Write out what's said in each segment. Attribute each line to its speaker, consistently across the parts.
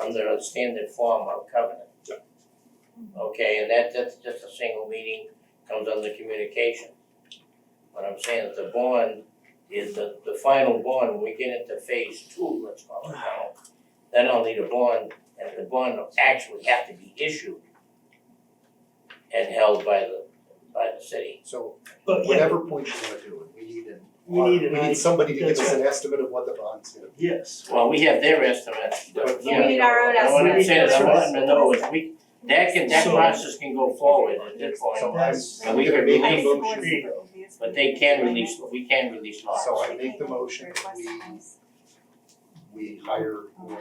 Speaker 1: under a standard form of covenant. Okay, and that that's just a single meeting, comes under communication. What I'm saying is the bond is the the final bond, when we get into phase two, let's call it now. Then I'll need a bond, and the bond will actually have to be issued and held by the by the city.
Speaker 2: So
Speaker 3: But yeah,
Speaker 2: whatever point you wanna do it, we need an
Speaker 3: We need an
Speaker 2: we
Speaker 3: idea.
Speaker 2: need somebody to give
Speaker 3: That's
Speaker 2: us an estimate of what the bond's gonna be.
Speaker 3: yes,
Speaker 1: Well, we have their estimates, but
Speaker 2: But
Speaker 4: we
Speaker 1: you know,
Speaker 4: need our own
Speaker 1: I wanna
Speaker 3: estimates.
Speaker 1: say that I
Speaker 3: That's
Speaker 1: want to know if we, that can, that
Speaker 3: So-
Speaker 1: process can go forward at this
Speaker 2: So
Speaker 1: point,
Speaker 2: I'm
Speaker 3: That's-
Speaker 2: I'm
Speaker 1: We
Speaker 2: gonna
Speaker 1: can
Speaker 2: make
Speaker 1: release-
Speaker 2: a
Speaker 3: There
Speaker 2: motion,
Speaker 3: you go.
Speaker 1: but they can release, we can release lots.
Speaker 2: So I make the motion that we we hire whoever.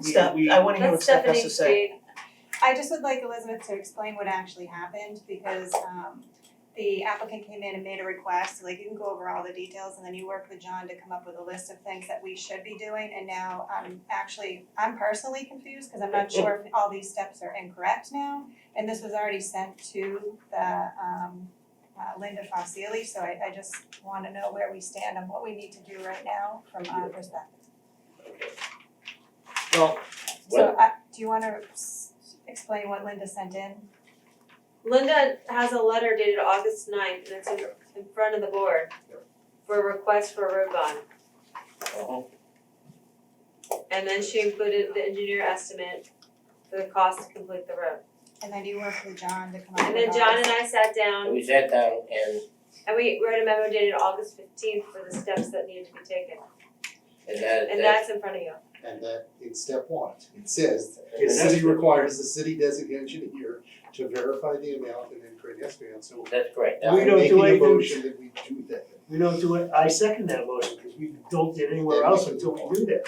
Speaker 5: Steph,
Speaker 3: We- we-
Speaker 5: I wanna hear what
Speaker 4: That's
Speaker 5: Steph has
Speaker 4: Stephanie's
Speaker 5: to say.
Speaker 4: big,
Speaker 6: I just would like Elizabeth to explain what actually happened because um the applicant came in and made a request, like you can go over all the details and then you worked with John to come up with a list of things that we should be doing and now I'm actually, I'm personally confused because I'm not sure if all these steps are incorrect now. And this was already sent to the um uh, Linda Fossili, so I I just wanna know where we stand and what we need to do right now from our perspective.
Speaker 5: Well,
Speaker 6: So I, do you wanna s- explain what Linda sent in?
Speaker 4: Linda has a letter dated August ninth and it's in in front of the board
Speaker 2: Yeah.
Speaker 4: for a request for a road bond.
Speaker 1: Uh-huh.
Speaker 4: And then she included the engineer estimate for the cost to complete the road.
Speaker 6: And then you worked with John to come up
Speaker 4: And
Speaker 6: with
Speaker 4: then
Speaker 6: all
Speaker 4: John
Speaker 6: this.
Speaker 4: and I sat down
Speaker 1: We sat down and
Speaker 4: and we wrote a memo dated August fifteenth for the steps that needed to be taken.
Speaker 1: and that
Speaker 4: And
Speaker 1: that
Speaker 4: that's in front of you.
Speaker 2: And that in step one, it says, the
Speaker 3: Yes.
Speaker 2: city requires the city designated engineer to verify the amount and then create an estimate, so
Speaker 1: that's great.
Speaker 3: We
Speaker 2: I'm
Speaker 3: don't do
Speaker 2: making a
Speaker 3: anything.
Speaker 2: motion that we do that.
Speaker 3: We don't do it, I second that motion, because we don't get anywhere else until we do that.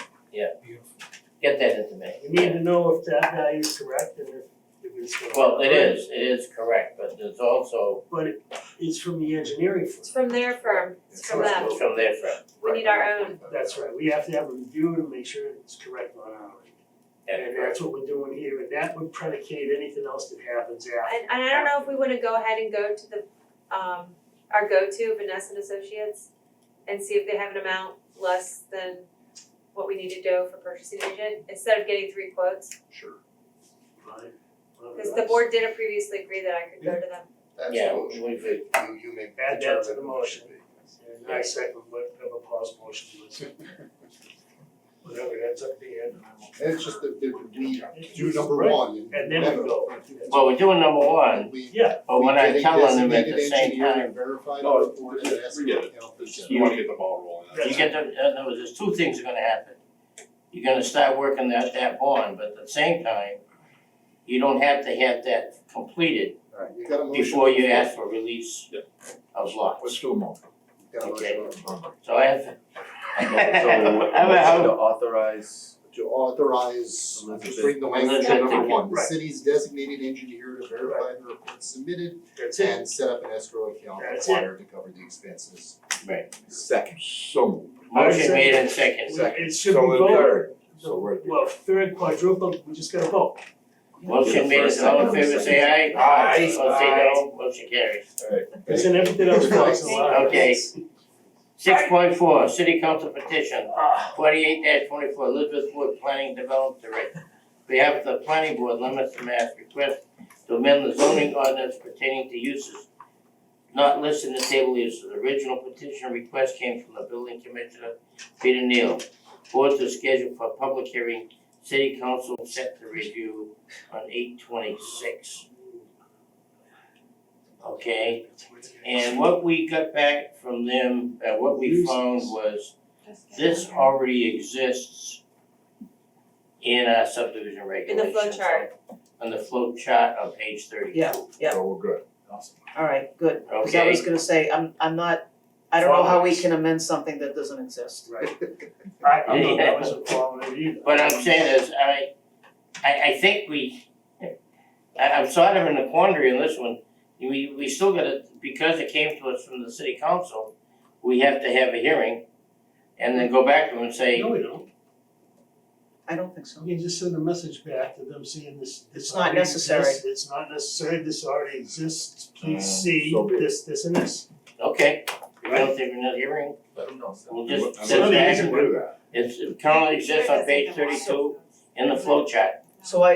Speaker 1: Get that into
Speaker 3: We need
Speaker 1: me.
Speaker 3: to know if that value is correct and if if it's. gonna-
Speaker 1: Well, it is, it is correct, but there's also
Speaker 3: But it- it's from the engineering
Speaker 4: It's
Speaker 3: firm,
Speaker 4: from their firm, it's from them.
Speaker 1: it's from their firm.
Speaker 4: We need our own.
Speaker 3: that's right, we have to have a review to make sure it's correct on our end. And that's what we're doing here, and that would predicate anything else that happens after.
Speaker 4: And and I don't know if we wanna go ahead and go to the um our go-to Vanessa and Associates and see if they have an amount less than what we need to do for purchasing agent, instead of getting three quotes.
Speaker 2: Sure,
Speaker 3: Right.
Speaker 4: Cause the board didn't previously agree that I could go to them.
Speaker 1: Yeah,
Speaker 2: absolutely.
Speaker 1: we- we-
Speaker 2: You you make.
Speaker 3: Add that to the
Speaker 2: determine what
Speaker 3: motion.
Speaker 2: it should
Speaker 3: And I second what, have a pause motion, was, whatever, that's up to you.
Speaker 2: be. And it's just that that we do number one and.
Speaker 3: And then we
Speaker 2: never-
Speaker 3: go.
Speaker 1: Well, we're doing number one,
Speaker 2: We
Speaker 3: Yeah,
Speaker 1: but when
Speaker 2: We
Speaker 1: I
Speaker 2: get a
Speaker 1: tell them at the
Speaker 2: designated
Speaker 1: same
Speaker 2: engineer
Speaker 1: time,
Speaker 2: and verified
Speaker 3: Oh,
Speaker 7: No,
Speaker 2: report and
Speaker 7: we
Speaker 2: ask
Speaker 7: get
Speaker 2: for help.
Speaker 7: You wanna get the ball rolling. that's
Speaker 1: you get the, in other words, there's two things are gonna happen. You're gonna start working that that bond, but at the same time, you don't have to have that completed
Speaker 2: Alright, you got a motion.
Speaker 1: before you ask for release
Speaker 7: Yep.
Speaker 1: of
Speaker 7: it.
Speaker 1: lots.
Speaker 7: Let's do a moment.
Speaker 2: You got a motion.
Speaker 1: So I have. I have a
Speaker 8: motion to
Speaker 1: hope,
Speaker 8: authorize,
Speaker 2: To authorize, just bring the language to
Speaker 1: Elizabeth,
Speaker 2: number
Speaker 1: thank you.
Speaker 2: one, the
Speaker 3: Right.
Speaker 2: city's designated engineer to verify the report submitted
Speaker 3: that's it.
Speaker 2: and set up an escrow account
Speaker 3: That's it.
Speaker 2: required to cover the expenses.
Speaker 8: second,
Speaker 7: So moved.
Speaker 1: motion made in second,
Speaker 8: second,
Speaker 3: It should
Speaker 8: so
Speaker 3: be
Speaker 8: in
Speaker 3: voted.
Speaker 8: third, so we're.
Speaker 3: Well, third quadruple, we just gotta vote.
Speaker 1: motion made in all in favor, say aye.
Speaker 8: Aye.
Speaker 1: Opposed, say no, motion carries.
Speaker 3: Because then everything else falls in line.
Speaker 1: Okay. Six point four, city council petition, twenty-eight twenty-four, Elizabeth Wood, planning development director. We have the planning board limits the mass request to amend the zoning ordinance pertaining to uses not listed in the table uses. The original petition request came from the building commissioner, Peter Neal. Board to schedule for public hearing, city council set to review on eight twenty-six. Okay, and what we got back from them, uh what we found was this already exists in our subdivision
Speaker 4: In the
Speaker 1: regulations.
Speaker 4: flow chart.
Speaker 1: On the flow chart on page thirty-two.
Speaker 5: Yeah, yeah,
Speaker 8: So we're good, awesome.
Speaker 5: all right, good, because I
Speaker 1: Okay.
Speaker 5: was gonna say, I'm, I'm not, I don't know how we can amend something that doesn't exist.
Speaker 3: Right. I, I know that wasn't following it either.
Speaker 1: What I'm saying is, I, I, I think we, I, I'm sort of in a quandary on this one. We, we still gotta, because it came to us from the city council, we have to have a hearing and then go back to them and say,
Speaker 3: No, we don't.
Speaker 5: I don't think so.
Speaker 3: We can just send a message back to them saying this, this
Speaker 5: It's not
Speaker 3: already
Speaker 5: necessary.
Speaker 3: exists, It's not necessary, this already exists,
Speaker 8: Uh,
Speaker 3: please see
Speaker 8: so be it.
Speaker 3: this, this and this.
Speaker 1: okay, we don't think we're not hearing,
Speaker 8: Let them know.
Speaker 1: we'll just
Speaker 8: I'm
Speaker 1: sit
Speaker 3: not
Speaker 1: back
Speaker 3: easy
Speaker 1: and
Speaker 8: do that.
Speaker 1: It's, it currently exists on page thirty-two,
Speaker 9: in the flow chart.
Speaker 1: So I,